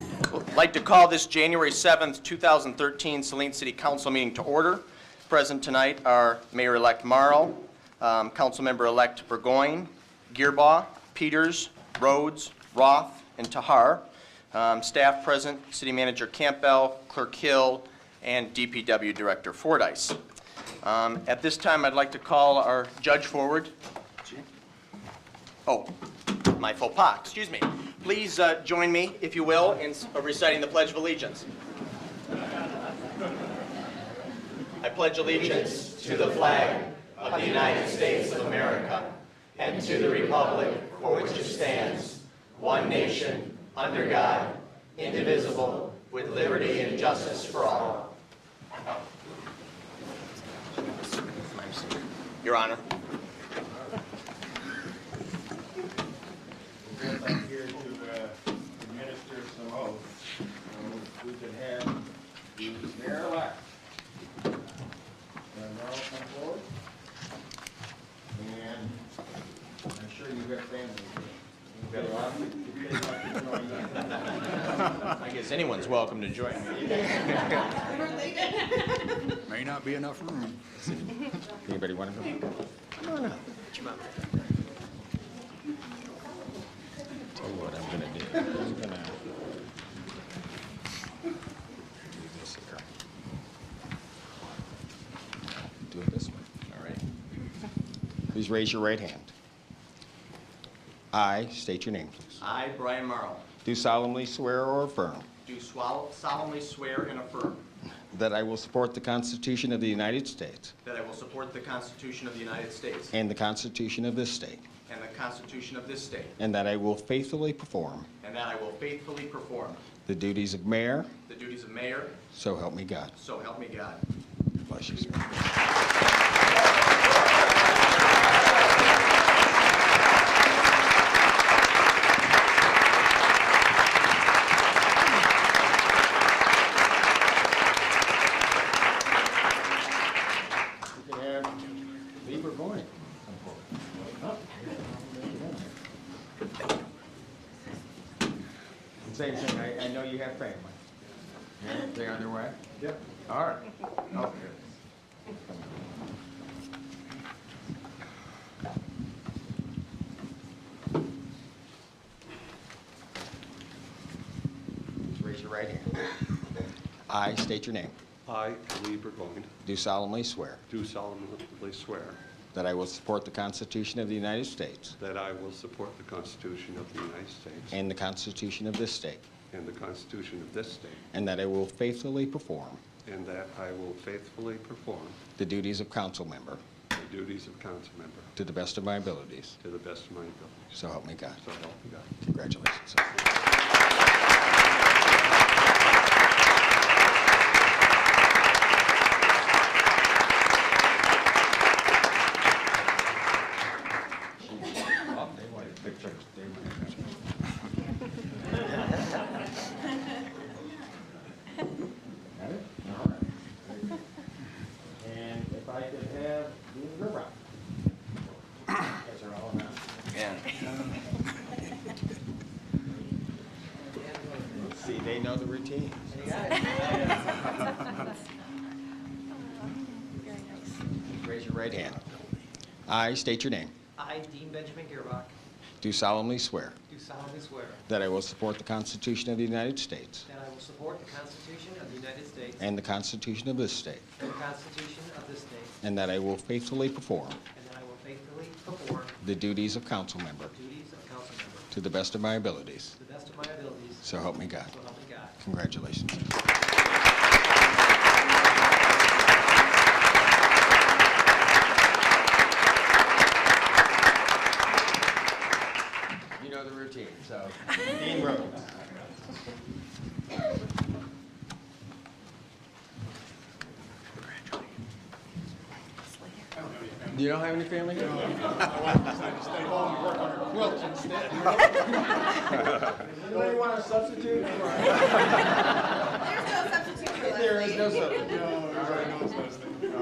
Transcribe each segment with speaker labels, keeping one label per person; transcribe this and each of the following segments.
Speaker 1: I'd like to call this January 7th, 2013 Saline City Council meeting to order. Present tonight are Mayor-elect Morrow, um, Councilmember-elect Burgoyne, Gearbaugh, Peters, Rhodes, Roth, and Tahar. Um, Staff present, City Manager Campbell, Clerk Hill, and DPW Director Fordice. Um, At this time, I'd like to call our judge forward. Oh, my faux pas, excuse me. Please uh, join me, if you will, in s- uh, reciting the Pledge of Allegiance. I pledge allegiance to the flag of the United States of America and to the republic for which it stands, one nation, under God, indivisible, with liberty and justice for all. Your Honor.
Speaker 2: We're both up here to uh, administer some oaths. So We could have the mayor-elect. And now come forward. And I'm sure you've got family. here. You've got a lot of-
Speaker 1: I guess anyone's welcome to join me.
Speaker 3: May not be enough room. Anybody want to go? Tell you what I'm gonna do. I'm gonna do this here. Do it this way. All right. Please raise your right hand. I state your name, please.
Speaker 1: I, Brian Morrow,
Speaker 3: Do solemnly swear or affirm
Speaker 1: do swal- solemnly swear and affirm
Speaker 3: that I will support the Constitution of the United States
Speaker 1: that I will support the Constitution of the United States
Speaker 3: and the Constitution of this state,
Speaker 1: and the Constitution of this state,
Speaker 3: And that I will faithfully perform
Speaker 1: and that I will faithfully perform
Speaker 3: the duties of mayor,
Speaker 1: the duties of mayor,
Speaker 3: so help me God.
Speaker 1: so help me God.
Speaker 3: Bless you, sir.
Speaker 2: We could have Lieber Boyd.
Speaker 3: Same thing, I, I know you have family. They're on their way?
Speaker 2: Yep.
Speaker 3: All right. Okay. Please Raise your right hand. I state your name.
Speaker 4: I, Lee Burgoyne,
Speaker 3: Do solemnly swear
Speaker 4: do solemnly swear
Speaker 3: that I will support the Constitution of the United States
Speaker 4: that I will support the Constitution of the United States
Speaker 3: and the Constitution of this state,
Speaker 4: and the Constitution of this state,
Speaker 3: and that I will faithfully perform
Speaker 4: and that I will faithfully perform
Speaker 3: the duties of council member
Speaker 4: the duties of council member
Speaker 3: to the best of my abilities.
Speaker 4: to the best of my ability.
Speaker 3: So help me God.
Speaker 4: So help me God.
Speaker 3: Congratulations.
Speaker 2: Got it? All right. Very good. And if I could have Dean Rivera. Guys are all announced.
Speaker 3: See, they know the routine.
Speaker 5: Very nice.
Speaker 3: Raise your right hand. I state your name.
Speaker 6: I, Dean Benjamin Gearbach,
Speaker 3: Do solemnly swear
Speaker 6: do solemnly swear
Speaker 3: that I will support the Constitution of the United States
Speaker 6: that I will support the Constitution of the United States and
Speaker 3: and the Constitution of this state,
Speaker 6: the Constitution of this state,
Speaker 3: and that I will faithfully perform
Speaker 6: and that I will faithfully perform
Speaker 3: the duties of council member
Speaker 6: the duties of council member
Speaker 3: to the best of my abilities.
Speaker 6: to the best of my abilities, so
Speaker 3: So help me God.
Speaker 6: help me God.
Speaker 3: Congratulations. You know the routine, so.
Speaker 2: Dean Rhodes.
Speaker 3: You don't have any family here?
Speaker 2: Anybody want a substitute?
Speaker 5: There's no substitute for Leslie.
Speaker 2: There is no substitute.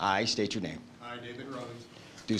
Speaker 3: I state your name.
Speaker 7: I, David Rhodes,